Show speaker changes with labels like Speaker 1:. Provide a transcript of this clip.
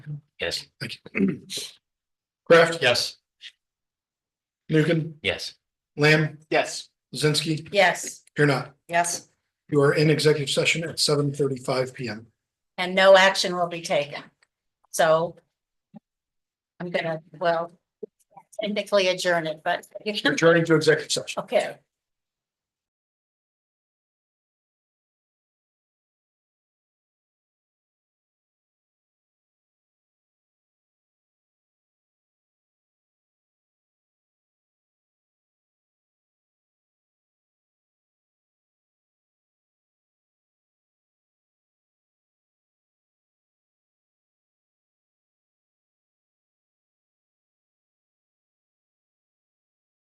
Speaker 1: Yes,
Speaker 2: Kraft,
Speaker 3: Yes.
Speaker 2: Nukin,
Speaker 1: yes.
Speaker 2: Lamb,
Speaker 3: Yes.
Speaker 2: Zinsky,
Speaker 4: Yes,
Speaker 2: you're not.
Speaker 4: yes,
Speaker 2: You are in executive session at seven thirty-five PM.
Speaker 4: and no action will be taken. So I'm gonna, well, technically adjourn it, but you can,
Speaker 2: Returning to executive session.
Speaker 4: okay.